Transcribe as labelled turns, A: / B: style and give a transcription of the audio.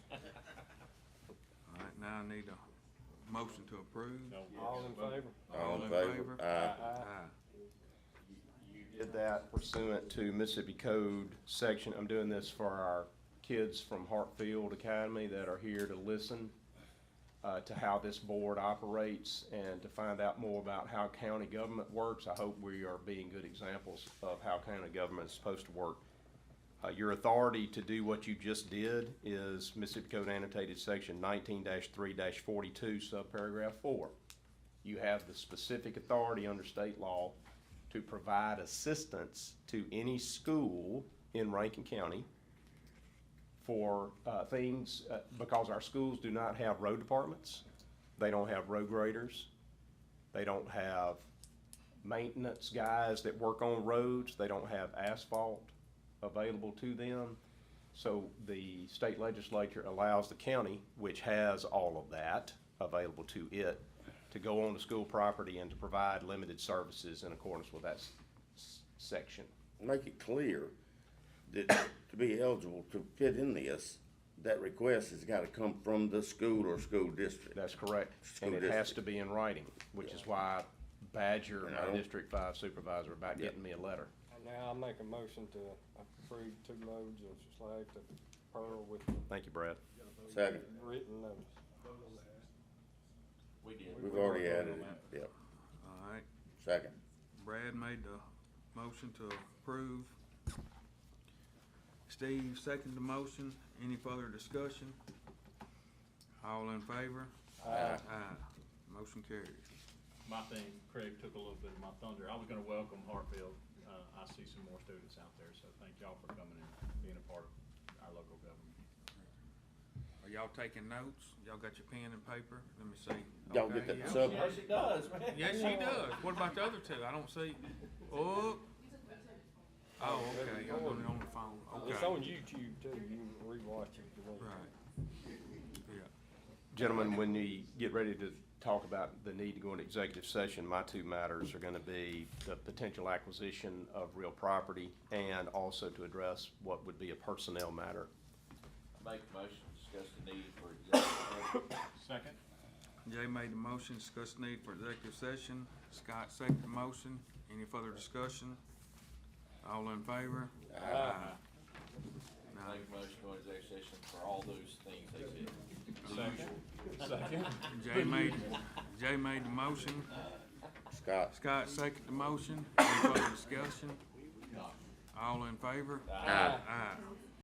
A: Now I need a motion to approve.
B: All in favor?
A: All in favor?
C: Aye.
A: Aye.
C: Did that pursuant to Mississippi Code section. I'm doing this for our kids from Hartfield Academy that are here to listen uh, to how this board operates and to find out more about how county government works. I hope we are being good examples of how county government is supposed to work. Uh, Your authority to do what you just did is Mississippi Code annotated section nineteen three forty-two, subparagraph four. You have the specific authority under state law to provide assistance to any school in Rankin County for uh, things, uh, because our schools do not have road departments, they don't have road graders, they don't have maintenance guys that work on roads, they don't have asphalt available to them. So the state legislature allows the county, which has all of that available to it, to go on to school property and to provide limited services in accordance with that s- s- section.
D: make it clear that to be eligible to fit in this, that request has gotta come from the school or school district.
C: That's correct. And
D: School
C: it has
D: district.
C: to be in writing, which is why I badger
D: And I
C: my
D: don't-
C: District Five supervisor about
D: Yeah.
C: getting me a letter.
B: And Now I make a motion to approve two loads of slag to Pearl with
C: Thank you, Brad.
D: Second,
B: written notice.
E: We did.
D: we've already added it, yep,
A: All right.
D: second.
A: Brad made the motion to approve. Steve seconded the motion. Any further discussion? All in favor?
B: Aye.
A: Aye. Motion carries.
E: My thing, Craig took a little bit of my thunder. I was gonna welcome Hartfield. Uh, I see some more students out there, so thank y'all for coming and being a part of our local government.
A: Are y'all taking notes? Y'all got your pen and paper? Let me see.
D: Y'all get
A: Okay,
D: that
A: yeah.
D: sub,
E: it does, man.
A: Yes, she does. What about the other two? I don't see. Oh. Oh, okay. I'm doing it on the phone.
B: It's
A: Okay.
B: on YouTube too, you can rewatch it if you want.
A: Right. Yeah.
C: Gentlemen, when you get ready to talk about the need to go into executive session, my two matters are gonna be the potential acquisition of real property and also to address what would be a personnel matter.
F: Make a motion, to discuss the need for executive session.
E: Second,
A: Jay made the motion, discuss need for executive session. Scott seconded the motion. Any further discussion? All in favor? Aye. Now,
F: Make a motion to go into executive session for all those things they said.
E: second, second.
A: Jay made, Jay made the motion.
D: Scott,
A: Scott seconded the motion. Any further discussion? All in favor? Aye. Aye.